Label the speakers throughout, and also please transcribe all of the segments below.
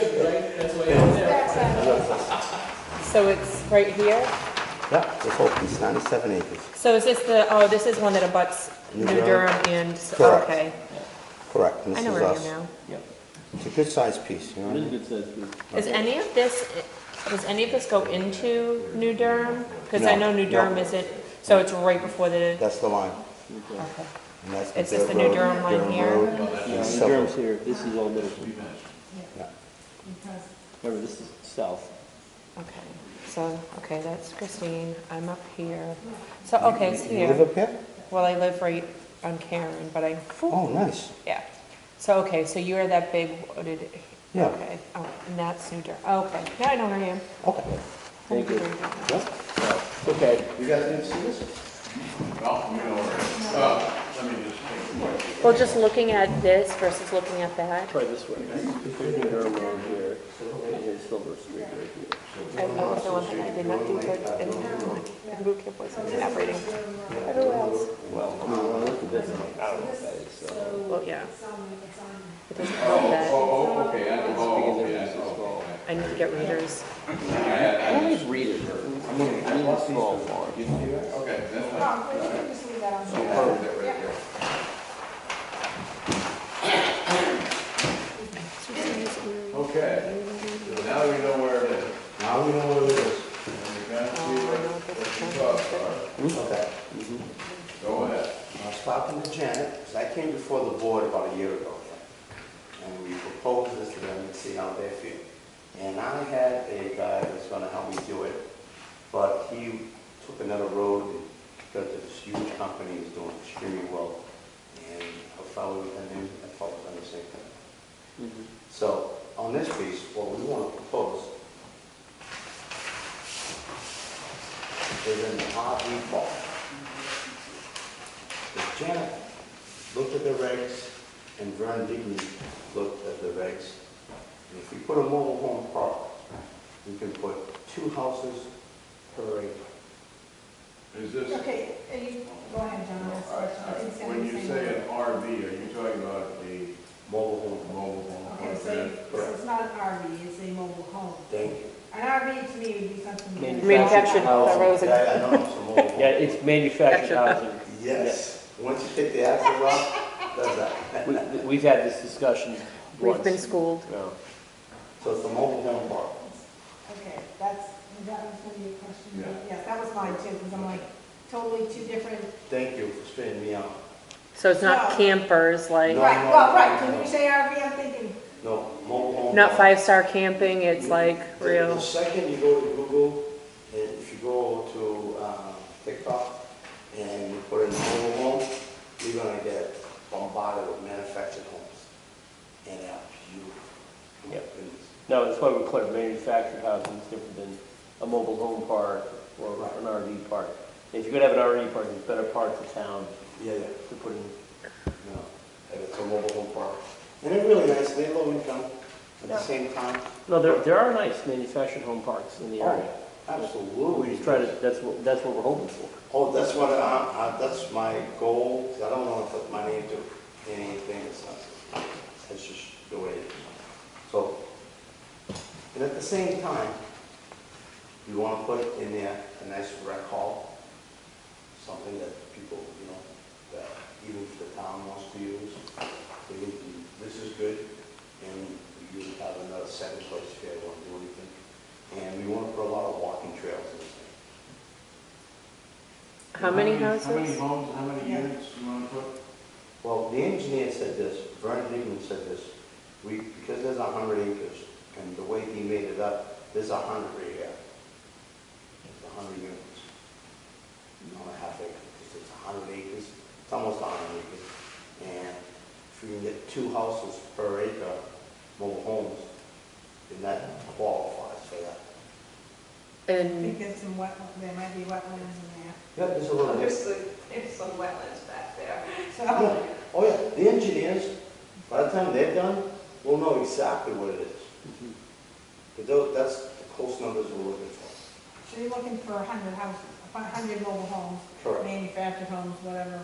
Speaker 1: That's why it's there.
Speaker 2: So it's right here?
Speaker 3: Yeah, this whole piece, 97 acres,
Speaker 2: So is this the, oh, this is one that abuts New
Speaker 3: New
Speaker 2: Durham
Speaker 3: Durham.
Speaker 2: and,
Speaker 3: Correct.
Speaker 2: okay.
Speaker 3: correct. and
Speaker 2: I
Speaker 3: this
Speaker 2: know
Speaker 3: is
Speaker 2: where I am
Speaker 3: us.
Speaker 2: now.
Speaker 1: Yep.
Speaker 3: It's a good sized piece, you know what I
Speaker 1: It is a
Speaker 3: mean?
Speaker 1: good size group.
Speaker 2: Is any of this, does any of this go into New Durham? Because I
Speaker 3: No,
Speaker 2: know New
Speaker 3: no.
Speaker 2: Durham isn't, so it's right before the,
Speaker 3: That's the line.
Speaker 1: Okay.
Speaker 2: okay.
Speaker 3: and that's
Speaker 2: It's just the
Speaker 3: Durham
Speaker 2: New Durham line
Speaker 3: Durham
Speaker 2: here?
Speaker 3: Road,
Speaker 1: Yeah,
Speaker 3: and
Speaker 1: the
Speaker 3: several-
Speaker 1: Durham's here, this is all Middleton.
Speaker 3: yeah.
Speaker 1: Remember, this is south.
Speaker 2: Okay, so, okay, that's Christine, I'm up here. So, okay, it's
Speaker 3: You live
Speaker 2: here.
Speaker 3: up here?
Speaker 2: Well, I live right on Karen, but I,
Speaker 3: Oh, nice.
Speaker 2: yeah. So, okay, so you are that big wooded,
Speaker 3: Yeah.
Speaker 2: okay, oh, and that's New Durham, okay, now I know where I am.
Speaker 3: Okay.
Speaker 1: Thank you.
Speaker 3: Yeah.
Speaker 1: Okay.
Speaker 3: You guys didn't see this?
Speaker 4: Well, you know, uh, let me just take a quick.
Speaker 2: Well, just looking at this versus looking at that,
Speaker 1: Try this way. Here's New Durham Road here, and here's Silver Street right here.
Speaker 2: I love the one that I did not do good in town, and boot camp wasn't operating. Everywhere else,
Speaker 1: Well, I mean, when I look at this, I'm like, I don't know what that is, so.
Speaker 2: well, yeah. It doesn't
Speaker 4: Oh,
Speaker 2: help that,
Speaker 4: oh, oh, okay, I, oh, yeah,
Speaker 1: Because everything's so small.
Speaker 2: I need to get readers.
Speaker 1: I always read it, I mean, I need a small farm.
Speaker 4: okay, that's fine. So, perfect, that right there. Okay, so now we know where it is,
Speaker 3: Now we know what it is.
Speaker 2: Mm-hmm.
Speaker 4: and we kind of see what,
Speaker 2: Oh, I know what
Speaker 4: what
Speaker 2: this
Speaker 4: the
Speaker 2: is.
Speaker 4: costs are.
Speaker 3: Okay.
Speaker 4: Go ahead.
Speaker 3: I was talking to Janet, because I came before the board about a year ago. And we proposed this to them and see how they feel. And I had a guy that was gonna help me do it, but he took another road and got this huge company is doing extremely well. And a fellow, and then a fellow done the same thing. So on this piece, what we want to propose is an RV park. If Janet looked at the regs and Vern Digny looked at the regs, and if we put a mobile home park, we can put two houses per acre.
Speaker 4: Is this,
Speaker 5: Okay, are you, go ahead, John.
Speaker 4: I-
Speaker 5: that's
Speaker 4: I-
Speaker 5: what I was gonna
Speaker 4: when you say an RV, are you talking about a
Speaker 3: Mobile home,
Speaker 4: mobile home?
Speaker 5: Okay, so you-
Speaker 4: event?
Speaker 5: so it's not an RV, it's a mobile home.
Speaker 3: thank you.
Speaker 5: An RV to me would be something. that-
Speaker 2: Manufactured
Speaker 1: housing.
Speaker 2: rose and-
Speaker 3: Yeah, I know, it's a mobile home.
Speaker 1: Yeah, it's manufactured housing.
Speaker 3: Yes, once you take the axle off, that's that.
Speaker 1: We, we've had this discussion once.
Speaker 2: We've been schooled.
Speaker 1: No.
Speaker 3: So it's a mobile home park.
Speaker 5: Okay, that's, that was gonna be a question.
Speaker 4: Yeah.
Speaker 5: Yes, that was mine too, because I'm like, totally two different.
Speaker 3: Thank you for straightening me out.
Speaker 2: So it's not
Speaker 5: No.
Speaker 2: campers,
Speaker 3: No.
Speaker 2: like,
Speaker 5: Right, well, right, when you say RV, I'm thinking,
Speaker 3: No, mobile home.
Speaker 2: not
Speaker 3: park.
Speaker 2: five-star camping, it's like
Speaker 3: The- The
Speaker 2: real.
Speaker 3: second you go to Google, and if you go to uh, TikTok and you put in mobile home, you're gonna get bombarded with manufactured homes. And oh, they're beautiful.
Speaker 1: Yep. No, that's why we're clear, manufactured housing is different than a mobile home park or an RV park. If you're gonna have an RV park, it's better parts of town
Speaker 3: Yeah, yeah.
Speaker 1: to put in.
Speaker 3: No, and it's a mobile home park. And they're really nice, they're low income at the same time.
Speaker 1: No, there, there are nice manufactured home parks in the area.
Speaker 3: Oh,
Speaker 1: We
Speaker 3: Absolutely.
Speaker 1: just try to, that's what, that's what we're hoping for.
Speaker 3: Oh, that's what, uh, uh, that's my goal, 'cause I don't want to put my name to anything, it's not, it's just the way it is. So, and at the same time, you want to put in there a nice rec hall, something that people, you know, that even if the town wants to use, they can, this is good, and you have another second place if you ever want to do anything. And we want to put a lot of walking trails in there.
Speaker 2: How many
Speaker 4: How many
Speaker 2: houses?
Speaker 4: homes, how many
Speaker 5: Yeah.
Speaker 4: units you wanna put?
Speaker 3: Well, the engineer said this, Vernon Newman said this, we, because there's a hundred acres, and the way he made it up, there's a hundred right here. There's a hundred units. Not a half acre, because it's a hundred acres, it's almost a hundred acres. And if you can get two houses per acre, mobile homes, then that qualifies for that.
Speaker 5: I think
Speaker 2: And,
Speaker 5: there's some wet, there might be wetlands in there.
Speaker 3: Yeah, there's a little bit.
Speaker 6: There's the- there's some wetlands back there.
Speaker 5: So,
Speaker 3: Oh, yeah, the engineers, by the time they're done, will know exactly what it is. But tho- that's the close numbers we're looking for.
Speaker 5: so you're looking for a hundred houses, a hundred mobile homes, manufactured homes, whatever,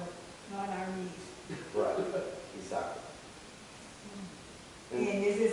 Speaker 5: not RVs.
Speaker 3: Right, exactly. And-
Speaker 5: And is this